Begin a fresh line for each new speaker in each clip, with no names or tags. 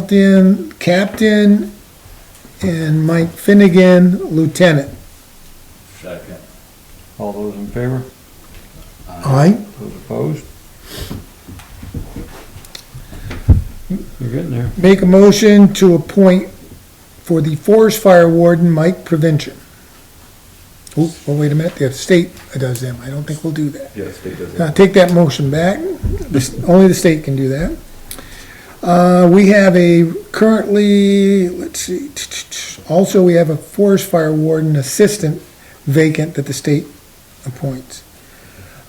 Carlton, captain, and Mike Finnegan, lieutenant.
Second.
All those in favor?
Aye.
Those opposed? You're Hmm, getting there.
Make a motion to appoint for the forest fire warden, Mike Prevention. Oh, oh, wait a minute, the state does them, I don't think we'll do that.
Yes, they did.
Now, take that motion back, This- only the state can do that. Uh, we have a currently, let's see, also we have a forest fire warden assistant vacant that the state appoints.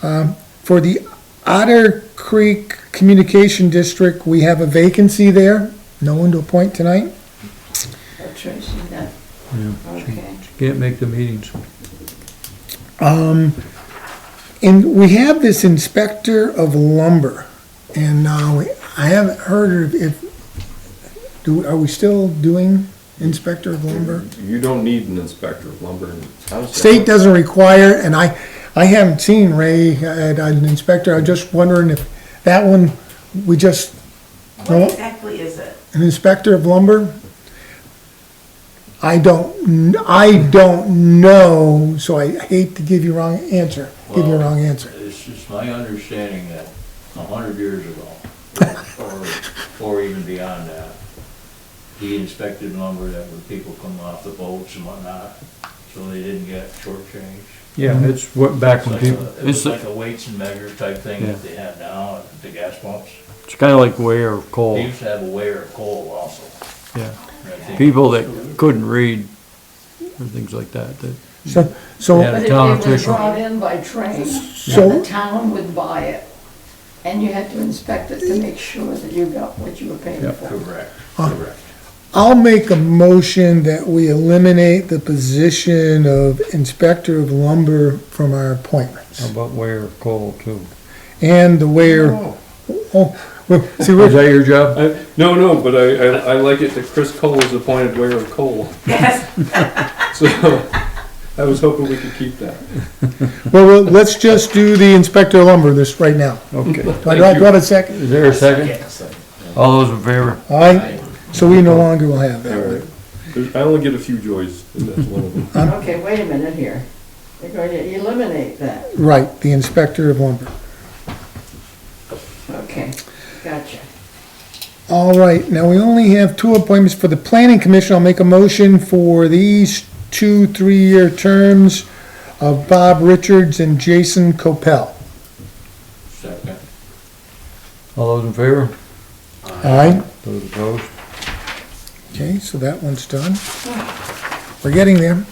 Um, For the Otter Creek Communication District, we have a vacancy there, no one to appoint tonight.
Oh, Tracy, that,
Yeah.
okay.
Can't make the meetings.
And we have this inspector of lumber, and, uh, we- I haven't heard if, do, are we still doing inspector of lumber?
You don't need an inspector of lumber and.
State doesn't require, and I, I haven't seen Ray at an inspector, I'm just wondering if that one, we just,
What exactly is it?
an inspector of lumber? I don't, kn- I don't know, so I hate to give you wrong answer, give you a wrong answer.
It's just my understanding that a hundred years ago, or, or even beyond that, he inspected lumber that when people come off the boats and whatnot, so they didn't get shortchanged.
Yeah, it's what, back
It's
when
like
people,
a- It
It's
was
the-
like a weights and measure type thing that they have now at the gas pumps.
It's kind of like wear of
Oh.
coal.
They used to have a weigher of coal also.
Yeah.
and I think-
People that couldn't read and things like that, that
So, so.
Yeah.
But if
town
it was
official.
brought in by train,
So-
then the town would buy it, and you had to inspect it to make sure that you got what you were paying for.
Correct, correct.
I'll make a motion that we eliminate the position of inspector of lumber from our
how
appointments.
about wear of coal too?
And the where, oh, well, see,
Is
we're,
that your job?
I- Uh, No, no, but I, I, I like it that Chris Cole is appointed wearer of coal,
Yes,
so I was hoping we could keep that.
well, well, let's just do the inspector of lumber this right now.
Okay.
Do I, do I have a second?
Is there a second?
all those in favor?
Aye, so we no longer will have that.
Alright. There's- I only get a few joys, and that's one of them.
Okay, wait a minute here. They're going to eliminate that.
Right, the inspector of lumber.
Okay, gotcha.
All right, now we only have two appointments for the planning commission. I'll make a motion for these two, three-year terms of Bob Richards and Jason Copel.
Second.
All those in favor?
Aye?
Those opposed?
Okay, so that one's done. We're getting there. Um,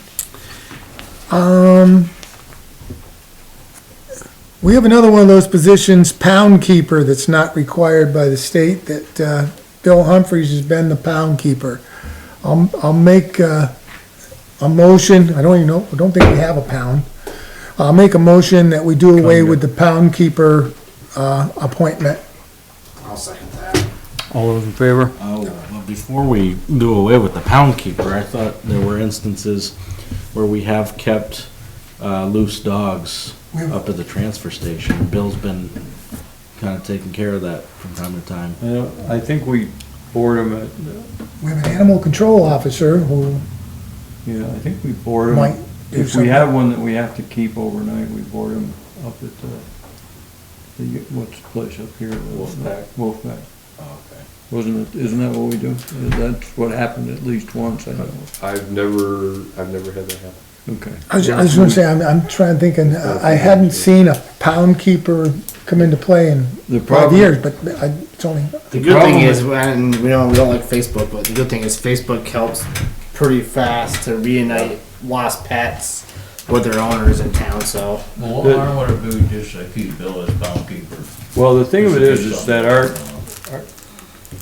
we have another one of those positions, pound keeper, that's not required by the state, that, uh, Bill Humphries has been the pound keeper. I'll, I'll make, uh, a motion, I don't even know, I don't think we have a pound. I'll make a motion that we do away with the pound keeper, uh, appointment.
All those in favor?
Oh, well, before we do away with the pound keeper, I thought there were instances where we have kept uh, loose dogs up at the transfer station. Bill's been kind of taking care of that from time to time.
Uh, I think we board them at,
We have an animal control officer who
yeah, I think we board
might
them.
do
If
something.
we have one that we have to keep overnight, we board them up at the, the, what's the place up here?
Wolfpack. Oh,
Wolfpack.
Okay.
Wasn't it, isn't that what we do? That's what happened at least once, I know.
I've never, I've never had that happen.
Okay.
I was, I was gonna say, I'm, I'm trying to think, and uh, I hadn't seen a pound keeper come into play in
The
five
problem-
years, but I, it's only,
The good
problem
thing is, and we don't we don't like Facebook, but the good thing is Facebook helps pretty fast to reunite lost pets with their owners in town. So
Well, what harm would it be just to keep Bill as pound keeper?
Well, the thing of it is, is that our,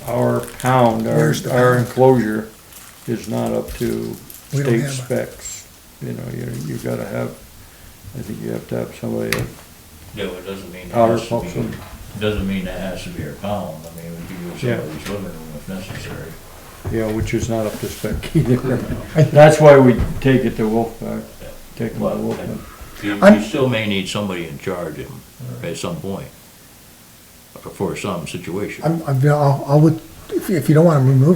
our pound, our,
Where's the-
our enclosure is not up to
We don't
state
have a-
specs. You know, you, you gotta have, I think you have to have somebody,
Yeah, but it doesn't mean it
Outer
has to be,
function.
doesn't mean it has to be a pound, I mean, we could use
Yeah.
somebody's living room if necessary.
you know, which is not up to spec either. That's why we take it to Wolfpack, take them to
Well,
Wolfpack.
You,
I'm-
you still may need somebody in charge of him at some point, for some situation.
I'm, I'm, I'll, I would, if you- if you don't want to remove